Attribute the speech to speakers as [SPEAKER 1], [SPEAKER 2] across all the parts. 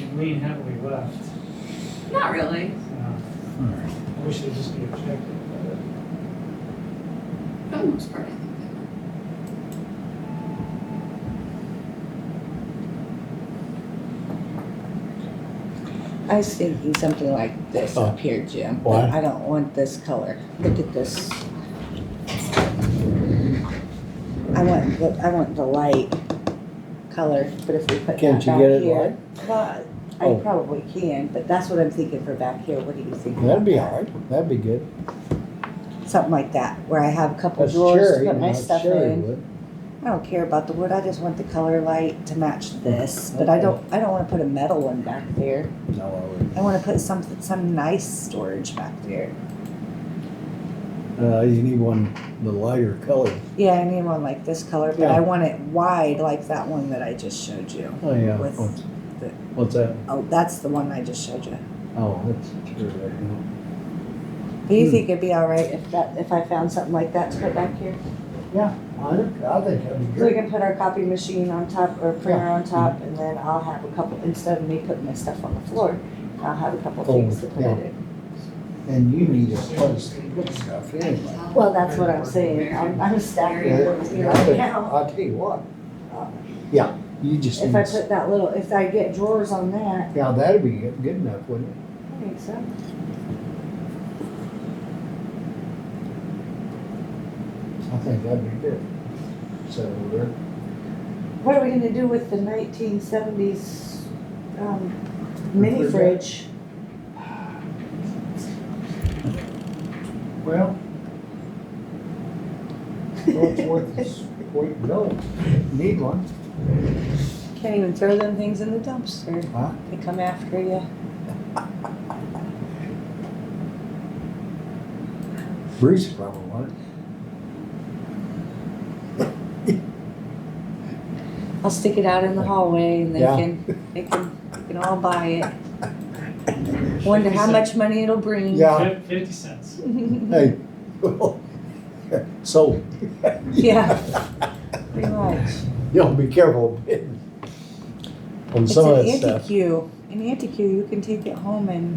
[SPEAKER 1] lean heavily left.
[SPEAKER 2] Not really.
[SPEAKER 1] you know.
[SPEAKER 3] Hmm.
[SPEAKER 1] I wish they'd just be objective. but
[SPEAKER 2] For the most part, I think they were.
[SPEAKER 4] I was thinking something like this up here, Jim. but
[SPEAKER 3] Oh. Why?
[SPEAKER 4] I don't want this color. Look at this. I want, the I want the light color, but if we put that back here.
[SPEAKER 3] Can't you get it light?
[SPEAKER 4] Well,
[SPEAKER 3] Oh.
[SPEAKER 4] I probably can, but that's what I'm thinking for back here. What do you think?
[SPEAKER 3] That'd be all right. That'd be good.
[SPEAKER 4] Something like that, where I have a couple
[SPEAKER 3] That's
[SPEAKER 4] drawers
[SPEAKER 3] cherry,
[SPEAKER 4] to put my
[SPEAKER 3] not
[SPEAKER 4] stuff
[SPEAKER 3] cherry
[SPEAKER 4] in.
[SPEAKER 3] wood.
[SPEAKER 4] I don't care about the wood. I just want the color light to match this, but I don't, I don't wanna put a metal one back there.
[SPEAKER 3] No, I wouldn't.
[SPEAKER 4] I wanna put some, some nice storage back there.
[SPEAKER 3] Uh, you need one, the lighter color.
[SPEAKER 4] Yeah, I need one like this color, but
[SPEAKER 3] Yeah.
[SPEAKER 4] I want it wide like that one that I just showed you.
[SPEAKER 3] Oh, yeah.
[SPEAKER 4] With
[SPEAKER 3] What's,
[SPEAKER 4] the-
[SPEAKER 3] what's that?
[SPEAKER 4] Oh, that's the one I just showed you.
[SPEAKER 3] Oh, that's cherry right now.
[SPEAKER 4] Do you
[SPEAKER 3] Hmm.
[SPEAKER 4] think it'd be all right if that if I found something like that to put back here?
[SPEAKER 3] Yeah, I think, I think that'd be
[SPEAKER 4] So we
[SPEAKER 3] good.
[SPEAKER 4] can put our copy machine on top or printer on top, and then I'll have a couple instead of me putting my stuff on the floor. I'll have a couple
[SPEAKER 3] Oh,
[SPEAKER 4] things to put
[SPEAKER 3] yeah.
[SPEAKER 4] it in.
[SPEAKER 3] And you need a place to put stuff anyway.
[SPEAKER 4] Well, that's what I'm saying. I'm, I'm stacking
[SPEAKER 3] Yeah,
[SPEAKER 4] it with me
[SPEAKER 3] I
[SPEAKER 4] right
[SPEAKER 3] think-
[SPEAKER 4] now.
[SPEAKER 3] I'll tell you what. uh, Yeah, you just
[SPEAKER 4] If I
[SPEAKER 3] need, s-
[SPEAKER 4] put that little, if I get drawers on that,
[SPEAKER 3] yeah, that'd be good good enough, wouldn't it?
[SPEAKER 4] I think so.
[SPEAKER 3] I think that'd be good. So, we're-
[SPEAKER 4] What are we gonna do with the nineteen seventies, um, mini fridge?
[SPEAKER 3] well, well, it's worth, it's worth, no, need one.
[SPEAKER 4] Can't even throw them things in the dumpster.
[SPEAKER 3] Huh?
[SPEAKER 4] They come after you.
[SPEAKER 3] Bruce probably wanted.
[SPEAKER 4] I'll stick it out in the hallway and they
[SPEAKER 3] Yeah.
[SPEAKER 4] can, they can, they can all buy it. Wonder how much money it'll bring.
[SPEAKER 3] Yeah.
[SPEAKER 1] fif- Fifty cents.
[SPEAKER 3] Hey, well, so.
[SPEAKER 4] Yeah. Pretty much.
[SPEAKER 3] Y'all be careful bidding on
[SPEAKER 4] It's
[SPEAKER 3] some of
[SPEAKER 4] an
[SPEAKER 3] that stuff.
[SPEAKER 4] antique. An antique, you can take it home and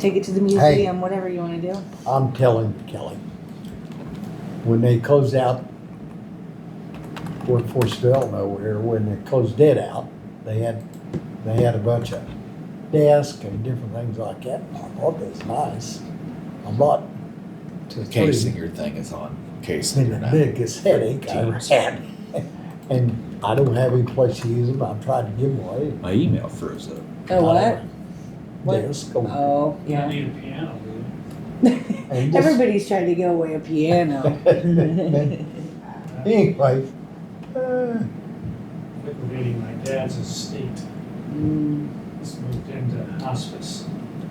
[SPEAKER 4] take it to the museum, whatever you wanna do.
[SPEAKER 3] I'm telling Kelly, when they closed out workforce development over here, when they closed it out, they had, they had a bunch of desks and different things like that. I thought that's nice. I bought two,
[SPEAKER 5] In case
[SPEAKER 3] three.
[SPEAKER 5] your thing is on, in
[SPEAKER 3] It's
[SPEAKER 5] case
[SPEAKER 3] been
[SPEAKER 5] you're
[SPEAKER 3] the
[SPEAKER 5] not.
[SPEAKER 3] biggest headache I ever had. And I don't have any place to use them. I've tried to give them away.
[SPEAKER 5] My email froze up.
[SPEAKER 4] Oh, what? What?
[SPEAKER 3] Desk. or-
[SPEAKER 4] Oh,
[SPEAKER 1] You don't
[SPEAKER 4] yeah.
[SPEAKER 1] need a piano, do you?
[SPEAKER 3] and just-
[SPEAKER 4] Everybody's trying to give away a piano.
[SPEAKER 3] Anyway, uh,
[SPEAKER 1] Liquidating my dad's estate,
[SPEAKER 4] Mm,
[SPEAKER 1] it's moved into hospice,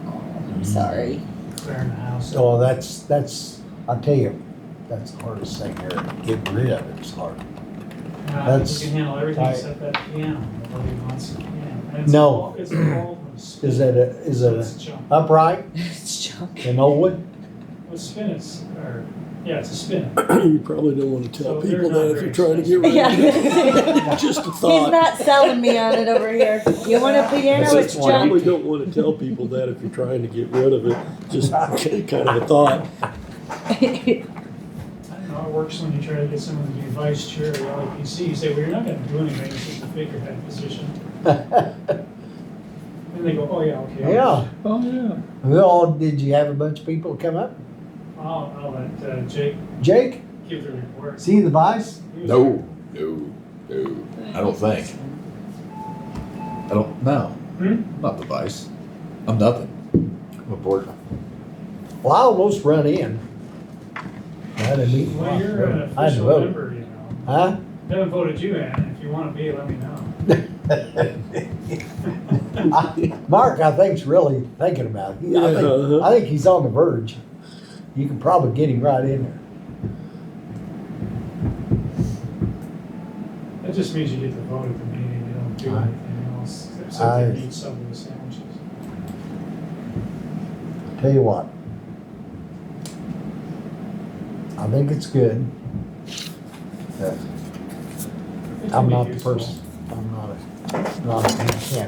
[SPEAKER 4] I'm sorry.
[SPEAKER 1] clearing the house. Uh, out.
[SPEAKER 3] Uh, so that's, that's, I tell you, that's the hardest thing here, get rid of it's hard.
[SPEAKER 1] Uh, we
[SPEAKER 3] that's-
[SPEAKER 1] can handle everything
[SPEAKER 3] I-
[SPEAKER 1] except that piano, nobody wants a piano. And it's
[SPEAKER 3] No.
[SPEAKER 1] all- It's all from spin.
[SPEAKER 3] Is it a, is it
[SPEAKER 1] It's
[SPEAKER 3] a
[SPEAKER 1] junk,
[SPEAKER 3] upright,
[SPEAKER 4] It's junk.
[SPEAKER 3] an old one?
[SPEAKER 1] well, spin is, or, yeah, it's a spin.
[SPEAKER 6] You probably don't want to tell
[SPEAKER 1] So they're
[SPEAKER 6] people
[SPEAKER 1] not
[SPEAKER 6] that if
[SPEAKER 1] very
[SPEAKER 6] you're trying to get rid
[SPEAKER 4] Yeah.
[SPEAKER 6] of it.
[SPEAKER 4] He's
[SPEAKER 6] Just a thought.
[SPEAKER 4] not selling me on it over here. You want a piano? It's
[SPEAKER 5] That's why
[SPEAKER 4] junk.
[SPEAKER 6] Probably don't want to tell people that if you're trying to get rid of it. Just kind of a thought.
[SPEAKER 1] I don't know, it works when you try to get someone to be vice chair of the LAPC, you say, well, you're not gonna do anything, it's just a figurehead position. And they go, oh, yeah, okay. I'll-
[SPEAKER 3] Yeah,
[SPEAKER 5] Oh, yeah.
[SPEAKER 3] who all, did you have a bunch of people come up?
[SPEAKER 1] I'll, I'll let uh, Jake
[SPEAKER 3] Jake,
[SPEAKER 1] give the report.
[SPEAKER 3] see the vice?
[SPEAKER 1] He was-
[SPEAKER 5] No, no, no. I don't think. I don't, no.
[SPEAKER 1] Hmm?
[SPEAKER 5] I'm not the vice. I'm nothing. I'm a board.
[SPEAKER 3] Well, I almost run in. I had a meeting.
[SPEAKER 1] Well, you're an
[SPEAKER 3] I had to
[SPEAKER 1] official
[SPEAKER 3] vote.
[SPEAKER 1] member, you know.
[SPEAKER 3] Huh?
[SPEAKER 1] Haven't voted you in, if you wanna be, let me know.
[SPEAKER 3] I- Mark, I think's really thinking about it. He- I think-
[SPEAKER 6] Yeah.
[SPEAKER 3] I think he's on the verge. You can probably get him right in there.
[SPEAKER 1] That just means you get to vote at the meeting, you don't do
[SPEAKER 3] I-
[SPEAKER 1] anything else,
[SPEAKER 3] I-
[SPEAKER 1] except to eat some of the sandwiches.
[SPEAKER 3] Tell you what. I think it's good.
[SPEAKER 1] It can
[SPEAKER 3] I'm
[SPEAKER 1] be
[SPEAKER 3] not the
[SPEAKER 1] useful.
[SPEAKER 3] person. I'm not a, not a, yeah.